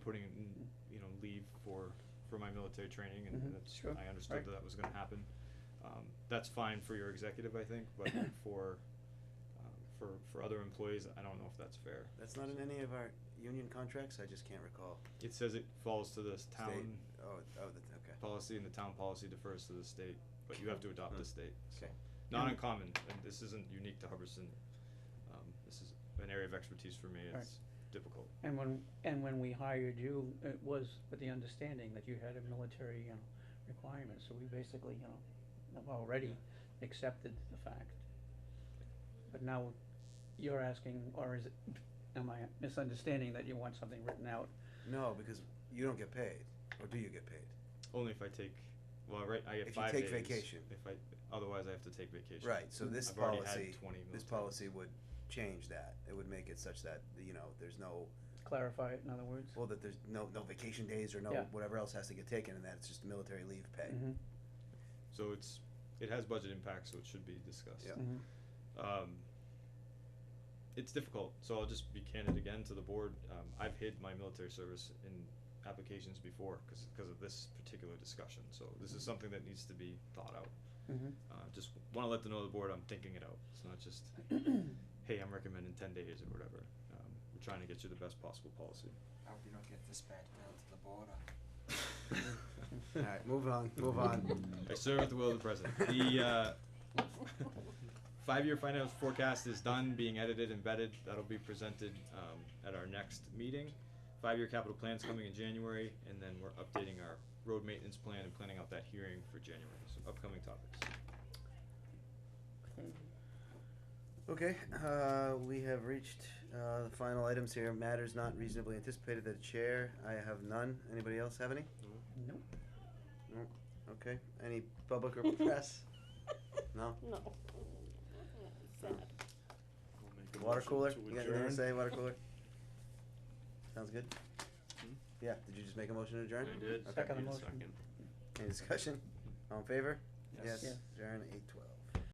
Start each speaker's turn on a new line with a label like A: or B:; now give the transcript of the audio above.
A: military training
B: Mhm.
A: and that's,
B: Sure.
A: I understood
B: Right.
A: that that was gonna happen. Um, that's fine for your executive, I think, but for, um, for, for other employees, I don't know if that's fair.
C: That's not in any of our union contracts, I just can't recall.
A: It says it falls to the town
C: Oh, oh, that's, okay.
A: policy and the town policy defers to the state, but you have to adopt the
C: Hmm.
A: state, so.
C: Okay.
A: Not
B: And-
A: uncommon, and this isn't unique to Hubbardston, um, this is an area of expertise for me,
B: Right.
A: it's difficult.
B: And when, and when we hired you, it was with the understanding that you had a military, you know, requirement, so we basically, you know, have already accepted the fact. But now you're asking, or is it, am I misunderstanding that you want something written out?
C: No, because you don't get paid, or do you get paid?
A: Only if I take, well, right, I get
C: If you
A: five days.
C: take vacation.
A: If I, otherwise I have to take vacation.
C: Right, so this
A: I've already had
C: policy,
A: twenty
C: this
A: military.
C: policy would change that. It would make it such that, you know, there's no,
B: Clarify it, in other words?
C: well, that there's no, no vacation days or no,
B: Yeah.
C: whatever else has to get taken, and that it's just military leave pay.
B: Mhm,
A: So it's, it has budget impact, so it should be discussed.
C: Yeah.
B: mhm.
A: Um, it's difficult, so I'll just be candid again to the board. Um, I've hid my military service in applications before because of this particular discussion. So this is something that needs to be thought out.
B: Mhm.
A: Uh, just want to let the know the board I'm thinking it out. It's not just, hey, I'm recommending ten days or whatever. Um, we're trying to get you the best possible policy.
D: I hope you don't get dispatched down to the border.
C: Alright, move on, move on.
A: I serve at the will of the president. The uh, five-year financial forecast is done, being edited and vetted. That'll be presented um, at our next meeting. Five-year capital plan's coming in January, and then we're updating our road maintenance plan and planning out that hearing for January. So upcoming topics.
C: Okay, uh, we have reached, uh, the final items here, matters not reasonably anticipated that chair, I have none, anybody else have any?
B: Nope.
C: No, okay, any public or press? No?
E: No. Sad.
C: Water cooler, you got anything to say, water cooler? Sounds good? Yeah, did you just make a motion to adjourn?
A: did.
B: Second motion.
C: Any discussion? All in favor?
A: Yes.
B: Yes.
C: Adjourn eight twelve.